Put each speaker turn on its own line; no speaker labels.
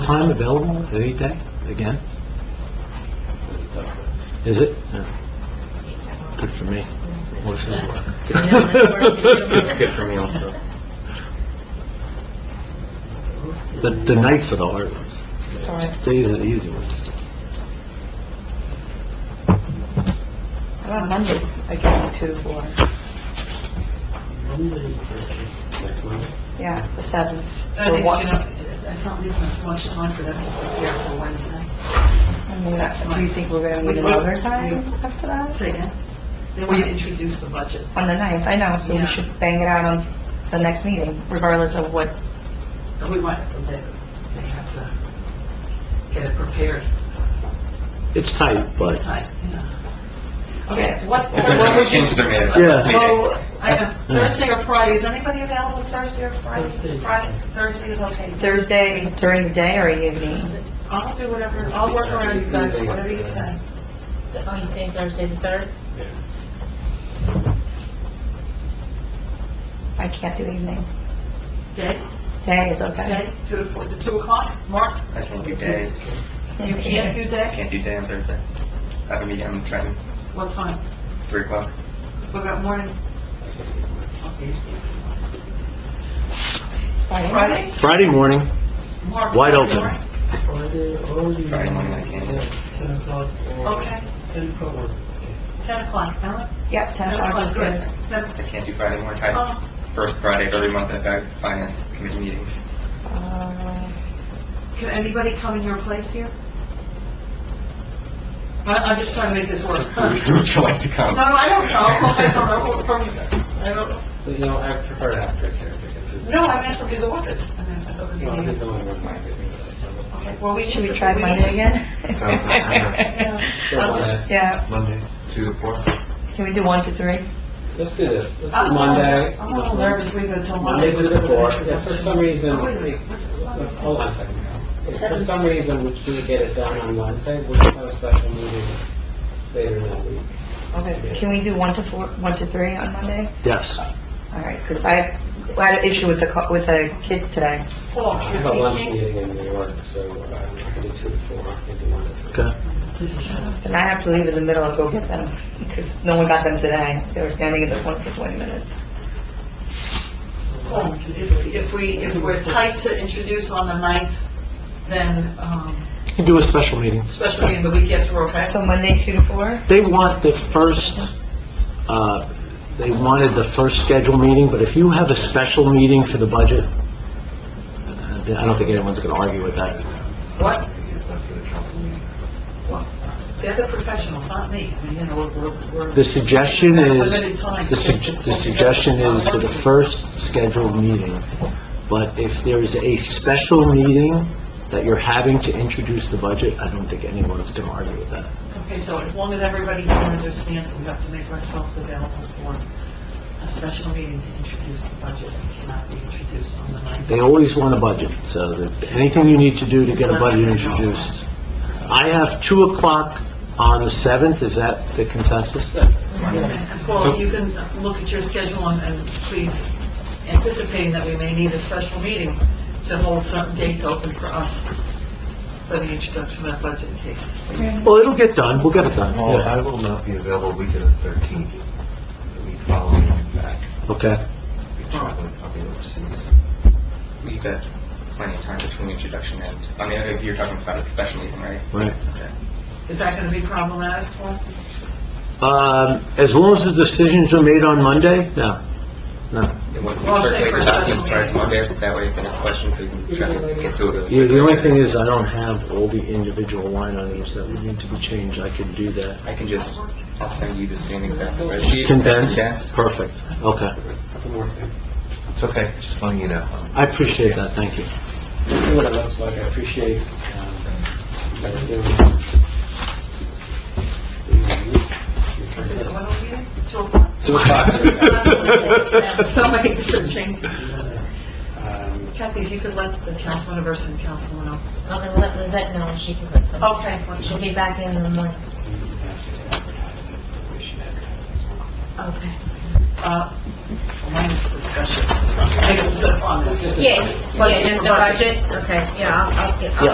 time available any day, again? Is it? No. Good for me. Motion to work.
Good for me also.
The, the nights are the hard ones. Days are the easy ones.
Well, Monday, again, two, four, yeah, the seventh.
I think, you know, that's not leaving us much time for them to prepare for Wednesday.
And we got- Do you think we're gonna need another time after that?
Say again? They want to introduce the budget.
On the ninth, I know, so we should bang it out on the next meeting, regardless of what,
And we want, they, they have to get it prepared
It's tight,
in
but,
time, you know. Okay, what,
Depends
what
on the
would you...
changes they're made. at
Yeah.
the meeting.
So, I know, Thursday or Friday, is anybody available Thursday or Friday? Friday, Thursday is okay.
Thursday during the day or evening?
I'll do whatever, I'll work around you guys, whatever you say.
Oh, you saying Thursday the third?
I can't do evening.
Day,
Day is okay.
day, two to four, to two o'clock, Mark?
I can't do days,
You can't do
I
day?
can't do day on Thursday. I have a meeting, I'm trying,
What time?
three o'clock.
What about morning?
Friday?
Friday?
Friday morning,
Mark,
Wide
Friday
open.
morning?
Friday morning, I can't.
Okay, ten o'clock, Ellen?
Yep, 10 o'clock is good.
Ten,
I can't do Friday morning. I,
oh,
first Friday of every month, I've got finance committee meetings.
Uh,
can anybody come in your place here? I, I'm just trying to make this work. No,
Who would you like to come?
I don't know, I don't know, What from, I don't know.
You know, I prefer after Sarah because it's...
No, I meant from his office. I meant from the
Well, he's
meetings.
the only one minded me. so-
Okay, well, we need
Should we
to-
try Monday again?
Sounds like-
Yeah.
Don't
I'll just-
wanna-
Yeah,
Monday, two to four?
can we do one to three?
Let's do this. Let's
I'm a
do
little-
Monday.
I'm a little nervous leaving until Monday.
Monday to the four. If for some reason,
Oh, wait a minute.
we-
What's-
let's-
what's-
hold on a second. If for some reason we can't get it done on Wednesday, we'll have a special meeting later that week.
Okay. Can we do one to four, one to three on Monday?
yes.
All right, because I I had an issue with the, co- with the kids today.
Paul,
I have a
you're
lunch
teaching?
meeting in New York, so I'm not going to do two to four, I can do one to three.
Okay.
And I have to leave in the middle and go get them, because no one got them today. They were standing in the phone for 20 minutes.
Well, If if we, if we're tight to introduce on the ninth, then, um,
You can do a special meeting.
especially in the week after, okay?
So Monday, 2 to 4?
They want the first, uh, they wanted the first scheduled meeting, but if you have a special meeting for the budget, uh, I don't think anyone's going to argue with that.
What? What? They're the professionals, not me. I mean, you know, we're- we're,
The
we're,
suggestion is,
Limited time.
the sug- the suggestion is for the first scheduled meeting, but if there is a special meeting that you're having to introduce the budget, I don't think anyone is going to argue with that.
okay, so as long as everybody here understands, we have to make ourselves available for a special meeting to introduce the budget that cannot be introduced on the ninth.
They always want a budget, so that anything you need to do to get a budget introduced. I have 2 o'clock on the 7th, is that the consensus?
And Paul, you can look at your schedule and- and please, anticipating that we may need a special meeting to hold certain dates open for us for the introduction of that budget case.
Well, it'll get done, we'll get it done,
Well,
yeah,
I will not be available weekend of thirteenth, the week following I'm back.
okay.
I'll be traveling, I'll be overseas.
We've got plenty of time between introduction and, I mean, if you're talking about a special meeting, right?
Right.
Is that going to be problematic, Paul?
Um, As long as the decisions are made on Monday, no, no.
It would be
Well, I'll say
certainly
for a
adopted
special
by
meeting.
Monday, that way if any questions, we can try to get through it.
Yeah, the only thing is, I don't have all the individual line items that would need to be changed, I could do that.
I can just, I'll send you the same exact spreadsheet.
Condensed?
Yes.
Perfect, okay.
One more thing.
It's okay, just letting you know.
I appreciate that, thank you.
See what it looks like, I appreciate, um, what you're doing.
So when are we meeting? Two o'clock?
Two Um, o'clock.
Somebody should change.
Um,
Kathy, if you could let the councilman or and councilman know.
I'm gonna let Lizette know and she can put them.
Okay. well,
She'll
she'll be-
be back in in the morning.
we should advertise.
Okay.
uh, Minus discussion. Take a step on it.
Yes, yeah, just the budget, okay, yeah, I'll, I'll get, I'll